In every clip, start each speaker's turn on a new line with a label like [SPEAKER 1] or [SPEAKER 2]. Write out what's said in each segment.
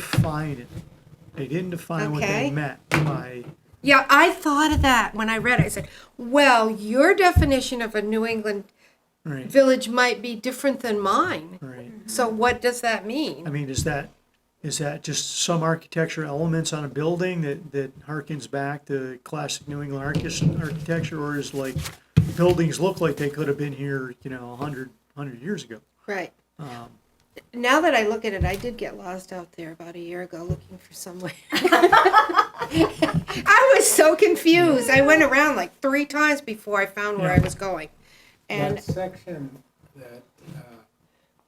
[SPEAKER 1] define it. They didn't define what they
[SPEAKER 2] Okay.
[SPEAKER 1] meant by,
[SPEAKER 2] Yeah, I thought of that when I read it. I said, well, your definition of a New England
[SPEAKER 1] right,
[SPEAKER 2] village might be different than mine.
[SPEAKER 1] right.
[SPEAKER 2] So what does that
[SPEAKER 1] I
[SPEAKER 2] mean?
[SPEAKER 1] mean, is that, is that just some architecture elements on a building that, that harkens back to classic New England archis- architecture? Or is like, buildings look like they could have been here, you know, a hundred, hundred years ago?
[SPEAKER 2] Right.
[SPEAKER 1] Um,
[SPEAKER 2] Now that I look at it, I did get lost out there about a year ago looking for somewhere. I was so confused. I went around like three times before I found where I was going. And
[SPEAKER 3] That section that uh,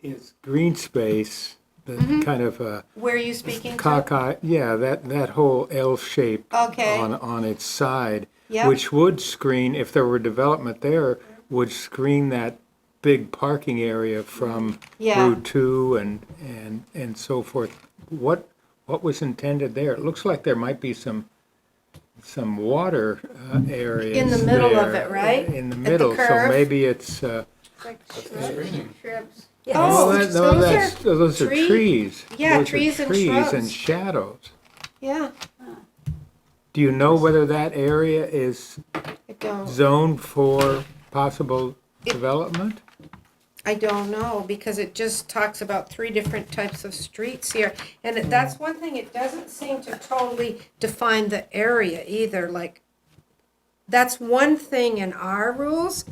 [SPEAKER 3] is green space, the
[SPEAKER 2] Mm-hmm.
[SPEAKER 3] kind of uh,
[SPEAKER 2] where are you speaking to?
[SPEAKER 3] cockeye, yeah, that, that whole L shape
[SPEAKER 2] Okay.
[SPEAKER 3] on, on its side,
[SPEAKER 2] Yep.
[SPEAKER 3] which would screen, if there were development there, would screen that big parking area from
[SPEAKER 2] Yeah.
[SPEAKER 3] Route 2 and, and, and so forth. What, what was intended there? It looks like there might be some, some water uh, areas
[SPEAKER 2] In the middle of
[SPEAKER 3] there,
[SPEAKER 2] it, right?
[SPEAKER 3] In
[SPEAKER 2] At
[SPEAKER 3] the
[SPEAKER 2] the
[SPEAKER 3] middle, so
[SPEAKER 2] curve?
[SPEAKER 3] maybe it's, uh, no,
[SPEAKER 2] Oh,
[SPEAKER 3] that- no,
[SPEAKER 2] those
[SPEAKER 3] that's,
[SPEAKER 2] are
[SPEAKER 3] those are
[SPEAKER 2] tree-
[SPEAKER 3] trees.
[SPEAKER 2] yeah,
[SPEAKER 3] Those are
[SPEAKER 2] trees and
[SPEAKER 3] Trees
[SPEAKER 2] shrubs.
[SPEAKER 3] and shadows.
[SPEAKER 2] Yeah,
[SPEAKER 3] Do you know whether that area is
[SPEAKER 2] I don't.
[SPEAKER 3] zoned for possible development?
[SPEAKER 2] I don't know because it just talks about three different types of streets here. And it- that's one thing, it doesn't seem to totally define the area either. Like, that's one thing in our rules.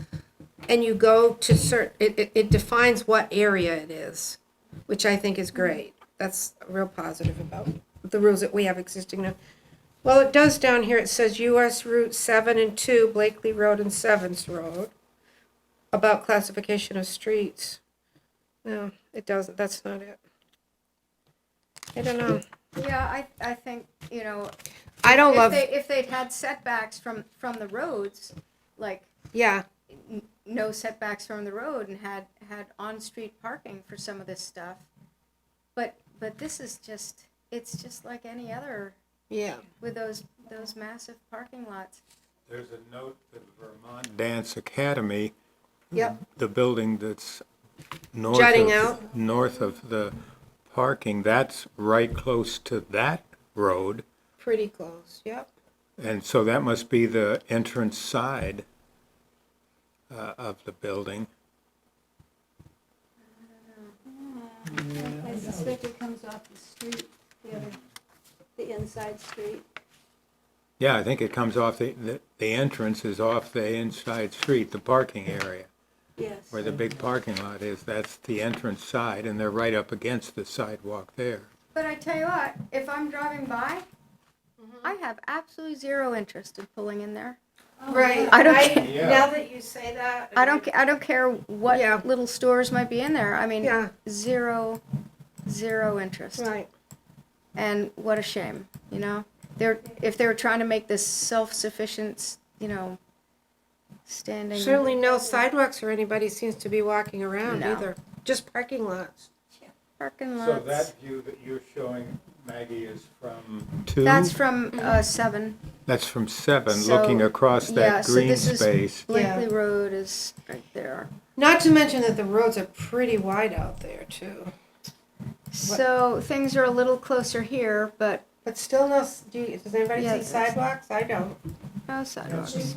[SPEAKER 2] And you go to cert, it, it, it defines what area it is, which I think is great. That's real positive about the rules that we have existing now. Well, it does down here, it says US Route seven and two, Blakely Road and Sevens Road about classification of streets. No, it doesn't, that's not it. I don't know.
[SPEAKER 4] Yeah, I, I think, you know,
[SPEAKER 2] I don't
[SPEAKER 4] if
[SPEAKER 2] love,
[SPEAKER 4] they, if they'd had setbacks from, from the roads, like,
[SPEAKER 2] yeah,
[SPEAKER 4] n- no setbacks from the road and had, had on-street parking for some of this stuff. But, but this is just, it's just like any other
[SPEAKER 2] yeah.
[SPEAKER 4] with those, those massive parking lots.
[SPEAKER 3] There's a note that Vermont Dance Academy,
[SPEAKER 2] Yep.
[SPEAKER 3] the building that's north of.
[SPEAKER 2] Jutting out?
[SPEAKER 3] North of the parking, that's right close to that road.
[SPEAKER 2] Pretty close, yep.
[SPEAKER 3] And so that must be the entrance side uh, of the building.
[SPEAKER 5] I suspect it comes off the street, the other, the inside street.
[SPEAKER 3] Yeah, I think it comes off the, the, the entrance is off the inside street, the parking area,
[SPEAKER 5] Yes.
[SPEAKER 3] where the big parking lot is. That's the entrance side, and they're right up against the sidewalk there.
[SPEAKER 4] But I tell you what, if I'm driving by,
[SPEAKER 2] Mm-hmm.
[SPEAKER 4] I have absolutely zero interest in pulling in there.
[SPEAKER 5] Oh,
[SPEAKER 2] Right.
[SPEAKER 4] I don't ca-
[SPEAKER 3] Yeah.
[SPEAKER 2] Oh, Now that you say that.
[SPEAKER 4] I don't, ca- I don't care what
[SPEAKER 2] Yeah.
[SPEAKER 4] little stores might be in there. I mean,
[SPEAKER 2] Yeah.
[SPEAKER 4] zero, zero interest.
[SPEAKER 2] Right,
[SPEAKER 4] And what a shame, you know. They're if they were trying to make this self-sufficient, you know, standing.
[SPEAKER 2] certainly no sidewalks or anybody seems to be walking around
[SPEAKER 4] No.
[SPEAKER 2] either, just parking lots.
[SPEAKER 4] parking lots.
[SPEAKER 3] view that you're showing, Maggie, is from? Two?
[SPEAKER 4] That's from uh, seven.
[SPEAKER 3] That's from seven,
[SPEAKER 4] So,
[SPEAKER 3] looking across
[SPEAKER 4] yeah,
[SPEAKER 3] that
[SPEAKER 4] so
[SPEAKER 3] green
[SPEAKER 4] this is-
[SPEAKER 3] space.
[SPEAKER 4] Blakely Road is right there.
[SPEAKER 2] Not to mention that the roads are pretty wide out there too,
[SPEAKER 4] So things are a little closer here, but
[SPEAKER 2] but still no, s- do you- does anybody
[SPEAKER 4] Yeah,
[SPEAKER 2] see
[SPEAKER 4] that's-
[SPEAKER 2] sidewalks? I don't.
[SPEAKER 4] no sidewalks.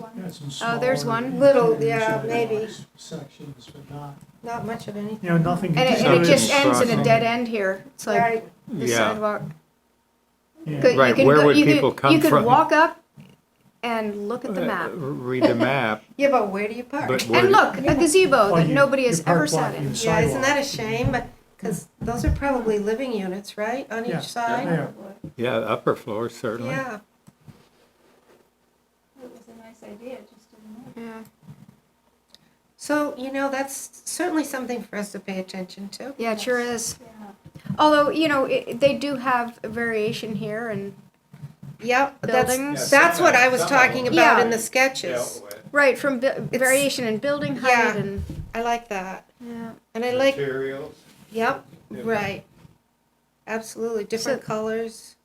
[SPEAKER 1] Oh,
[SPEAKER 4] there's one.
[SPEAKER 2] Little, yeah, maybe.
[SPEAKER 1] Sections, but not.
[SPEAKER 2] Not much of anything.
[SPEAKER 1] You know, nothing.
[SPEAKER 4] And it,
[SPEAKER 3] So
[SPEAKER 4] and it
[SPEAKER 3] it's
[SPEAKER 4] just ends in a
[SPEAKER 3] crossing.
[SPEAKER 4] dead end here. It's like
[SPEAKER 2] Right,
[SPEAKER 4] the
[SPEAKER 3] Yeah.
[SPEAKER 4] sidewalk.
[SPEAKER 1] Yeah.
[SPEAKER 4] Could- you
[SPEAKER 3] Right,
[SPEAKER 4] can
[SPEAKER 3] where
[SPEAKER 4] go-
[SPEAKER 3] would
[SPEAKER 4] you could-
[SPEAKER 3] people come
[SPEAKER 4] You
[SPEAKER 3] from?
[SPEAKER 4] could walk up and look at the map.
[SPEAKER 3] Uh, Read the map,
[SPEAKER 2] yeah, but where do you park?
[SPEAKER 3] but where,
[SPEAKER 4] And look, a gazebo
[SPEAKER 1] Oh,
[SPEAKER 4] that
[SPEAKER 1] you-
[SPEAKER 4] nobody
[SPEAKER 1] you
[SPEAKER 4] has
[SPEAKER 1] park
[SPEAKER 4] ever sat
[SPEAKER 1] blocking
[SPEAKER 4] in.
[SPEAKER 1] the
[SPEAKER 2] Yeah, isn't
[SPEAKER 1] sidewalk.
[SPEAKER 2] that a shame? Because those are probably living units, right, on
[SPEAKER 1] Yeah.
[SPEAKER 2] each side?
[SPEAKER 1] Yeah.
[SPEAKER 3] yeah, the upper floor certainly.
[SPEAKER 2] Yeah,
[SPEAKER 5] It was a nice idea, it just didn't work.
[SPEAKER 4] Yeah,
[SPEAKER 2] so, you know, that's certainly something for us to pay attention to.
[SPEAKER 4] yeah, it sure is.
[SPEAKER 5] Yeah.
[SPEAKER 4] Although, you know, it, they do have variation here and,
[SPEAKER 2] Yep, that's,
[SPEAKER 4] Buildings.
[SPEAKER 2] that's what I was talking about in the
[SPEAKER 4] Yeah.
[SPEAKER 2] sketches.
[SPEAKER 4] right, from bu- variation in building height
[SPEAKER 2] Yeah.
[SPEAKER 4] and,
[SPEAKER 2] I like that,
[SPEAKER 4] yeah.
[SPEAKER 2] and I like,
[SPEAKER 3] Materials.
[SPEAKER 2] yep,
[SPEAKER 3] Yeah.
[SPEAKER 2] right. Absolutely, different colors,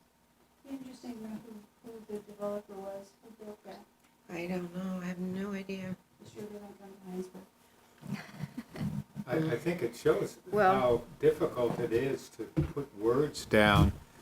[SPEAKER 5] Interesting who, who the developer was, who built that,
[SPEAKER 2] I don't know, I have no idea.
[SPEAKER 5] it sure didn't come from Heinsberg.
[SPEAKER 3] I, I think it shows
[SPEAKER 4] Well-
[SPEAKER 3] how difficult it is to put words down